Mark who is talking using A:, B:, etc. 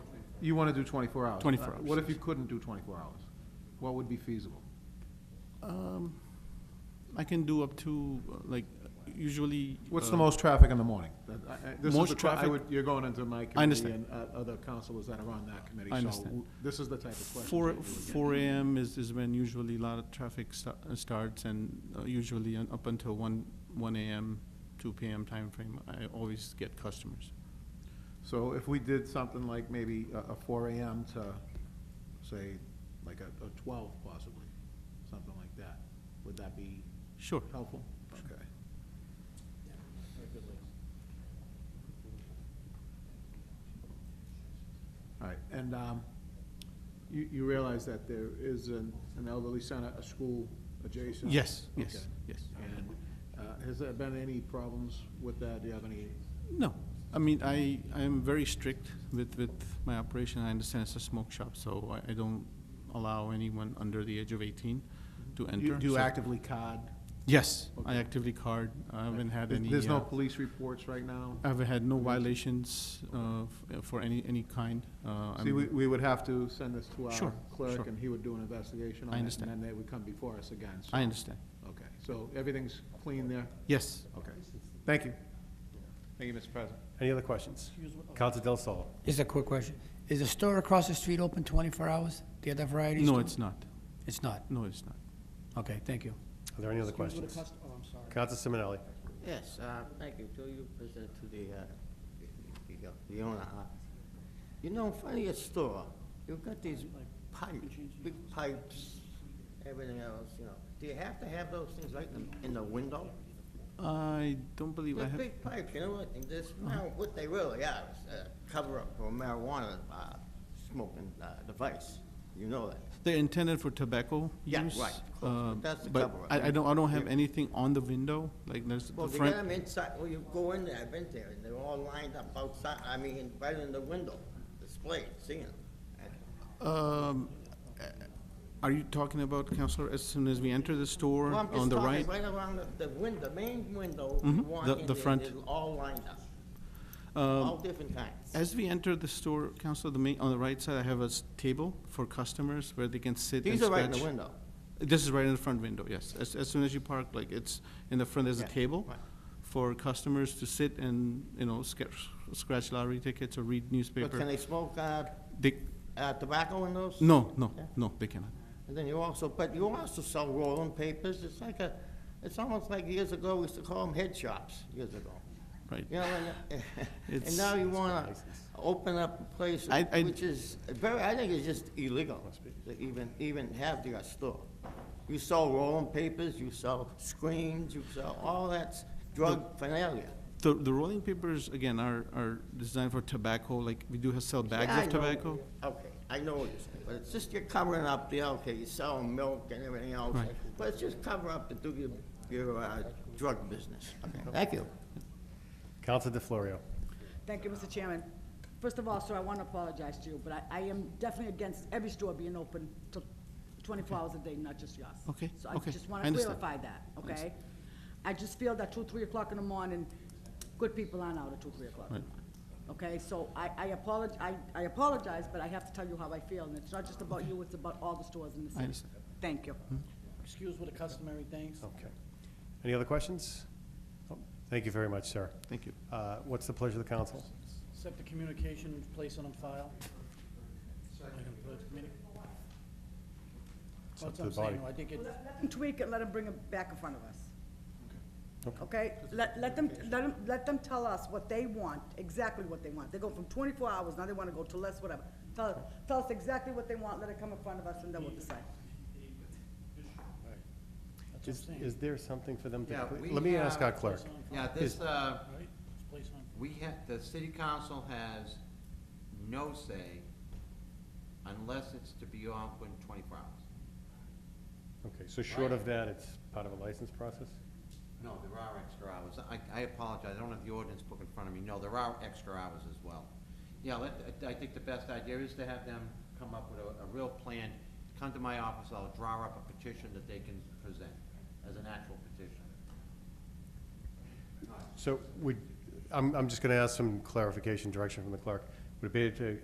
A: You want to do 24 hours?
B: 24
A: Uh,
B: hours,
A: What if you couldn't do 24 hours? What would be feasible?
B: Um, I can do up to, uh, like, usually.
A: What's
B: uh,
A: the most traffic in the morning? That- I- I- This is
B: Most
A: the, tra- I
B: traffic-
A: would, you're going into my committee
B: understand.
A: and uh, other councilors that are on that committee.
B: I
A: so
B: understand.
A: w- This is the type of question.
B: Four, four AM is, is when usually a lot of traffic sta- uh, starts and uh, usually un- up until one, one AM, two PM timeframe, I always get customers.
A: So if we did something like maybe a a 4 AM to, say, like a a 12 possibly, something like that, would that be
B: Sure.
A: helpful? Okay. All right, and um, you you realize that there is an an elderly center, a school adjacent?
B: Yes, yes,
A: Okay.
B: yes.
A: And uh, has there been any problems with that? Do you have any,
B: No, I mean, I, I am very strict with, with my operation. I understand it's a smoke shop, so I, I don't allow anyone under the age of eighteen to enter.
A: you- do you
B: so-
A: actively card?
B: Yes, I
A: Okay.
B: actively card. I haven't had
A: There-
B: any.
A: There's no
B: uh,
A: police reports right now?
B: I've had no violations uh, f- for any, any kind. Uh,
A: See,
B: I'm-
A: we, we would have to send this to our
B: Sure,
A: clerk,
B: sure.
A: and he would do an investigation on it.
B: I understand.
A: And then they would come before us again, so.
B: I understand.
A: Okay, so everything's clean there?
B: Yes.
A: Okay, thank you. Thank you, Mr. President.
C: Any other questions? Council Del Sol.
D: Just a quick question. Is the store across the street open 24 hours, the other variety store?
B: No, it's not.
D: It's not?
B: No, it's not.
D: Okay, thank you.
C: Are there any other questions? Council Simonelli.
E: Yes, uh, thank you, Joe, you present to the, uh, the- the- the owner. huh? You know, in front of your store, you've got these pipes, big pipes, everything else, you know. Do you have to have those things right in, in the window?
B: I don't believe I
E: They're
B: have.
E: big pipes, you know, what, and this, now, what they really are is a cover-up for marijuana, uh, smoking, uh, device. You know that.
B: They're intended for tobacco
E: Yeah,
B: use.
E: right, of course,
B: uh,
E: but that's the
B: But
E: cover-up.
B: I, I don't, I don't have
E: Yeah.
B: anything on the window, like there's the
E: Well, they got them
B: front.
E: inside, well, you go in there, I've been there, and they're all lined up outside, I mean, right in the window, displayed, seeing them.
B: Um, uh, Are you talking about, Counselor, as soon as we enter the store
E: Well, I'm
B: on
E: just
B: the
E: talking
B: right?
E: right around the- the window, main window,
B: Mhm,
E: you
B: the-
E: walk in
B: the
E: there,
B: front.
E: they're all lined up,
B: Um,
E: all different kinds.
B: As we enter the store, Counselor, the main, on the right side, I have a s- table for customers where they can sit and
E: These
B: scratch.
E: are right in the window.
B: This is right in the front window, yes. As, as soon as you park, like, it's, in the front, there's a
E: Yeah,
B: table
E: right.
B: for customers to sit and, you know, scratch, scratch lottery tickets or read
E: But can
B: newspaper.
E: they smoke uh,
B: They,
E: uh, tobacco in those?
B: no, no,
E: Yeah.
B: no, they cannot.
E: And then you also, but you also sell rolling papers, it's like a, it's almost like years ago, we used to call them head shops, years ago.
B: Right.
E: You know, and,
B: It's-
E: and now you wanna open up a place
B: I- I-
E: which is very, I think it's just illegal to even, even have your store. You sell rolling papers, you sell screens, you sell all that drug finalia.
B: The, the rolling papers, again, are, are designed for tobacco, like, we do have sell
E: Yeah, I
B: bags of
E: know.
B: tobacco.
E: Okay, I know what you're saying, but it's just you're covering up the, okay, you sell milk and everything else.
B: Right.
E: But it's just cover up the, do your, your, uh, drug business. Okay, thank you.
C: Council DeFlorio.
F: Thank you, Mr. Chairman. First of all, sir, I want to apologize to you, but I, I am definitely against every store being open till twenty-four hours a day, not just yours.
B: Okay,
F: So I
B: okay,
F: just
B: I
F: want to
B: understand.
F: clarify that, okay? I just feel that two, three o'clock in the morning, good people aren't out at two, three o'clock in the
B: Right.
F: morning. Okay, so I, I apologize, I, I apologize, but I have to tell you how I feel, and it's not just about you, it's about all the stores in the city.
B: understand. Hmm.
F: Thank you.
D: Excuse with the customary things.
C: Okay. Any other questions? Oh, Thank you very much, sir.
B: Thank you.
C: Uh, What's the pleasure of the council?
D: Accept the communication, place on file. Item for the committee.
C: It's up to the body.
D: I think it,
F: Let them tweak it, let them bring it back in front of us.
C: Okay.
F: Okay, let, let them, let them, let them tell us what they want, exactly what they want. They go from twenty-four hours, now they wanna go to less, whatever. Tell, us- tell us exactly what they want, let it come in front of us, and then we'll decide.
C: Is is there something for them
G: Yeah,
C: to,
G: we
C: let me ask our
G: have-
C: clerk.
G: Yeah, this, uh,
D: place on.
G: we have, the city council has no say unless it's to be open twenty-four hours.
C: Okay, so short of that, it's part of a license process?
G: No, there are extra hours. I, I apologize, I don't have the ordinance book in front of me. No, there are extra hours as well. Yeah, let, I think the best idea is to have them come up with a, a real plan. Come to my office, I'll draw up a petition that they can present as an actual petition.
C: So would, I'm, I'm just going to ask some clarification, direction from the clerk. Would it be to